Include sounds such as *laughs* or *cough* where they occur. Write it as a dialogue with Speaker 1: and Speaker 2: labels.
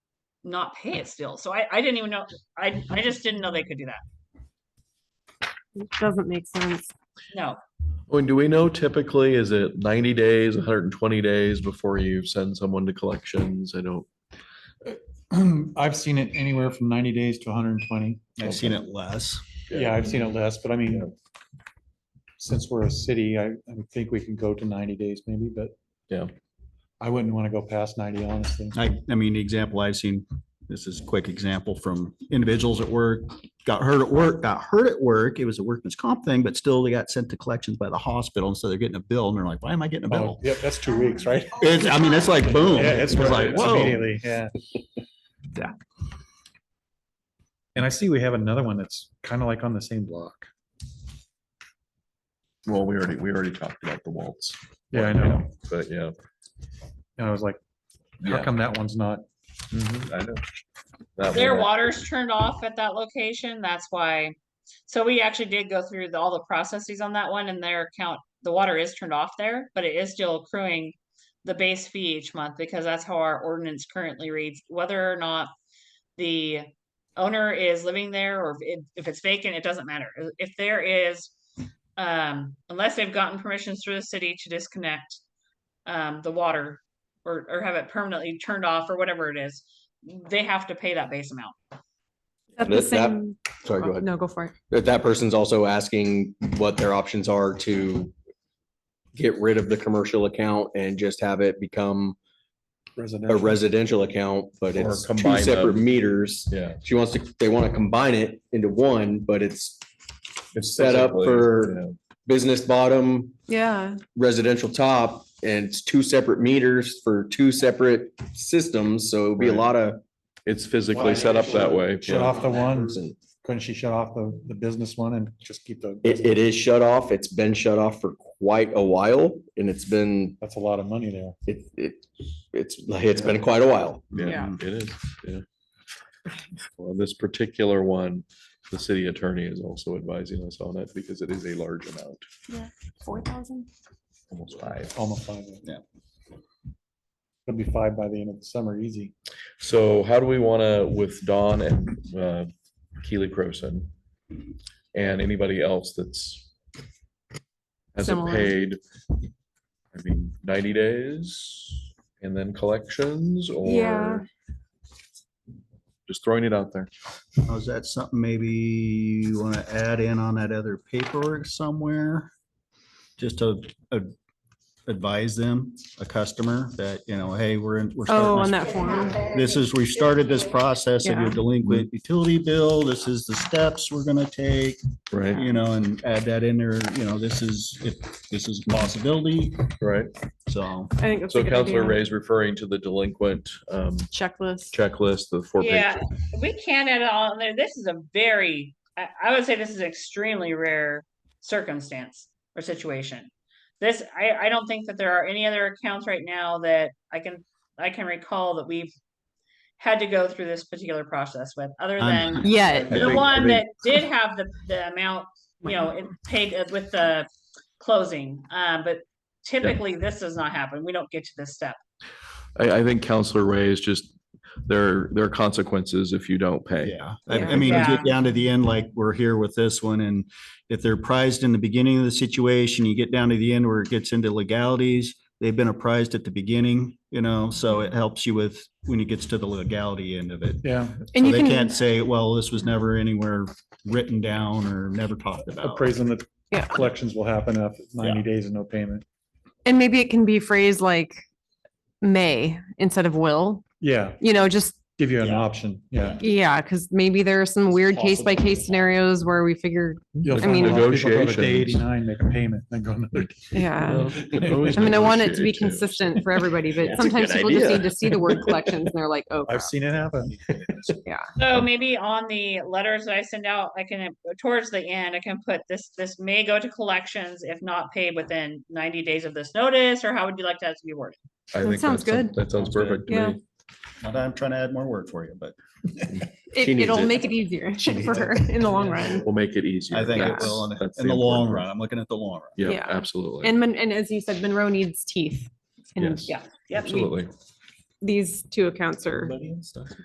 Speaker 1: not pay it still. So I, I didn't even know, I, I just didn't know they could do that.
Speaker 2: It Doesn't make sense.
Speaker 1: No,
Speaker 3: When do we know typically, is it ninety days, hundred and twenty days before you send someone to collections? I don't,
Speaker 4: *clears throat* I've seen it anywhere from ninety days to hundred and twenty.
Speaker 5: I've seen it less.
Speaker 4: Yeah, I've seen it less, but I mean, since we're a city, I, I would think we can go to ninety days maybe, but.
Speaker 3: Yeah.
Speaker 4: I wouldn't want to go past ninety, honestly.
Speaker 5: I, I mean, the example I've seen, this is a quick example from individuals at work, got hurt at work, got hurt at work. It was a workman's comp thing, but still they got sent to collections by the hospital. And so they're getting a bill and they're like, why am I getting a
Speaker 4: Oh,
Speaker 5: bill?
Speaker 4: yeah, that's two weeks, right?
Speaker 5: It's, I mean, it's like boom.
Speaker 4: Oh. Yeah, it's
Speaker 5: It was like,
Speaker 4: like
Speaker 5: whoa.
Speaker 4: immediately, yeah.
Speaker 5: Yeah.
Speaker 4: And I see we have another one that's kind of like on the same block.
Speaker 3: well, we already, we already talked about the waltz,
Speaker 4: Yeah, I know.
Speaker 3: but yeah.
Speaker 4: And I was like, how
Speaker 3: Yeah, Mm-hmm.
Speaker 4: come that one's not?
Speaker 3: I know. That
Speaker 1: their
Speaker 3: one,
Speaker 1: water's turned off at that location. That's why. So we actually did go through the- all the processes on that one and their account, the water is turned off there, but it is still accruing the base fee each month because that's how our ordinance currently reads, whether or not the owner is living there or if, if it's vacant, it doesn't matter. Uh, If there is, um, unless they've gotten permissions through the city to disconnect um, the water or, or have it permanently turned off or whatever it is, they have to pay that base amount.
Speaker 2: Is that the
Speaker 6: That- that-
Speaker 2: same?
Speaker 6: Sorry, go
Speaker 2: oh,
Speaker 6: ahead.
Speaker 2: No, go for it.
Speaker 6: That, that person's also asking what their options are to get rid of the commercial account and just have it become a
Speaker 4: residential?
Speaker 6: residential account, but
Speaker 3: Or
Speaker 6: it's two
Speaker 3: combine
Speaker 6: separate
Speaker 3: them.
Speaker 6: meters.
Speaker 3: Yeah.
Speaker 6: She wants to, they want to combine it into one, but it's
Speaker 3: It's
Speaker 6: set up
Speaker 3: physically,
Speaker 6: for-
Speaker 3: yeah.
Speaker 6: business bottom,
Speaker 2: Yeah,
Speaker 6: residential top, and it's two separate meters for two separate systems. So it'll be a
Speaker 3: Right.
Speaker 6: lot of.
Speaker 3: It's physically set up that way.
Speaker 4: Shut
Speaker 3: yeah.
Speaker 4: off the one,
Speaker 6: It,
Speaker 4: couldn't she shut off the, the business one and just keep the?
Speaker 6: it is shut off. It's been shut off for quite a while and it's been
Speaker 4: That's a lot of money there.
Speaker 6: it, it, it's, it's been quite a while.
Speaker 3: Yeah,
Speaker 1: Yeah.
Speaker 3: it is, yeah. Well, this particular one, the city attorney is also advising us on it because it is a large amount,
Speaker 2: four thousand?
Speaker 3: almost five.
Speaker 4: Almost five.
Speaker 5: Yeah.
Speaker 4: It'll be five by the end of the summer, easy.
Speaker 3: So how do we want to, with Dawn and uh, Keely Croson and anybody else that's hasn't
Speaker 2: Similar.
Speaker 3: paid, I mean, ninety days and then collections
Speaker 2: Yeah.
Speaker 3: or just throwing it out there.
Speaker 5: Now, Oh, Is that something maybe you want to add in on that other paperwork somewhere? Just to uh, advise them, a customer that, you know, hey, we're in, we're starting.
Speaker 2: Oh,
Speaker 5: this-
Speaker 2: on that form.
Speaker 5: This is, we've started this process of
Speaker 2: Yeah.
Speaker 5: your delinquent utility bill. This is the steps we're gonna take,
Speaker 3: Right.
Speaker 5: you know, and add that in there, you know, this is, if this is a possibility,
Speaker 3: Right.
Speaker 5: so.
Speaker 2: I think that's a
Speaker 3: So
Speaker 2: good
Speaker 3: Counselor
Speaker 2: idea.
Speaker 3: Ray's referring to the delinquent um,
Speaker 2: Checklist.
Speaker 3: checklist, the four page.
Speaker 1: Yeah, we can add it on there. This is a very, I, I would say this is an extremely rare circumstance or situation. This, I, I don't think that there are any other accounts right now that I can, I can recall that we've had to go through this particular process with, other
Speaker 5: I'm-
Speaker 1: than
Speaker 2: Yeah,
Speaker 3: I
Speaker 1: the
Speaker 3: think- I
Speaker 1: one that
Speaker 3: think-
Speaker 1: did have the, the amount, you know, it paid it with the closing. Uh, but typically this does not happen. We don't get to this step.
Speaker 3: I, I think Counselor Ray is just, there, there are consequences if you don't pay.
Speaker 5: Yeah, I,
Speaker 2: Yeah.
Speaker 5: I mean, you
Speaker 1: Yeah.
Speaker 5: get down to the end, like we're here with this one, and if they're apprised in the beginning of the situation, you get down to the end where it gets into legalities. They've been apprised at the beginning, you know, so it helps you with when it gets to the legality end of it.
Speaker 4: Yeah.
Speaker 2: and
Speaker 5: So
Speaker 2: you
Speaker 5: they
Speaker 2: can,
Speaker 5: can't say, well, this was never anywhere written down or never talked about.
Speaker 4: Appraising that
Speaker 2: Yeah.
Speaker 4: collections will happen after ninety days and no payment.
Speaker 2: and maybe it can be phrased like may instead of will,
Speaker 4: Yeah,
Speaker 2: you know, just,
Speaker 4: give you an
Speaker 5: Yeah.
Speaker 4: option, yeah.
Speaker 2: yeah, because maybe there are some weird case by case scenarios where we figure,
Speaker 4: You'll
Speaker 2: I
Speaker 4: find
Speaker 2: mean-
Speaker 4: a lot of people go to Day
Speaker 3: Negotiations.
Speaker 4: eighty-nine, make a payment, then go another. day.
Speaker 2: yeah.
Speaker 3: I
Speaker 2: *laughs* I mean, I want it to be consistent for everybody, but sometimes people just need to see the word collections and they're like, oh,
Speaker 4: I've seen it happen.
Speaker 1: So maybe on the letters that I send out, I can, towards the end, I can put this, this may go to collections if not paid within ninety days of this notice, or how would you like that to be worded?
Speaker 3: I
Speaker 2: That
Speaker 3: think
Speaker 2: sounds
Speaker 3: that's-
Speaker 2: good.
Speaker 3: That sounds
Speaker 5: Sounds good.
Speaker 3: perfect to
Speaker 2: Yeah.
Speaker 3: me.
Speaker 5: Not that I'm trying to add more work for you, but
Speaker 2: it,
Speaker 6: She needs
Speaker 2: it'll
Speaker 6: it.
Speaker 2: make it easier
Speaker 5: She
Speaker 2: *laughs*
Speaker 5: needs
Speaker 2: for
Speaker 5: it.
Speaker 2: her in the long run.
Speaker 3: We'll make it easier.
Speaker 5: I think it
Speaker 3: That's-
Speaker 5: will in the-
Speaker 3: that's
Speaker 5: in the long
Speaker 3: important
Speaker 5: run. I'm looking at the long run.
Speaker 3: part. Yeah,
Speaker 2: Yeah.
Speaker 3: absolutely.
Speaker 2: And, Mon- and as you said, Monroe needs teeth. And
Speaker 3: Yes,
Speaker 1: Yeah. Yep.
Speaker 3: absolutely.
Speaker 2: these two accounts are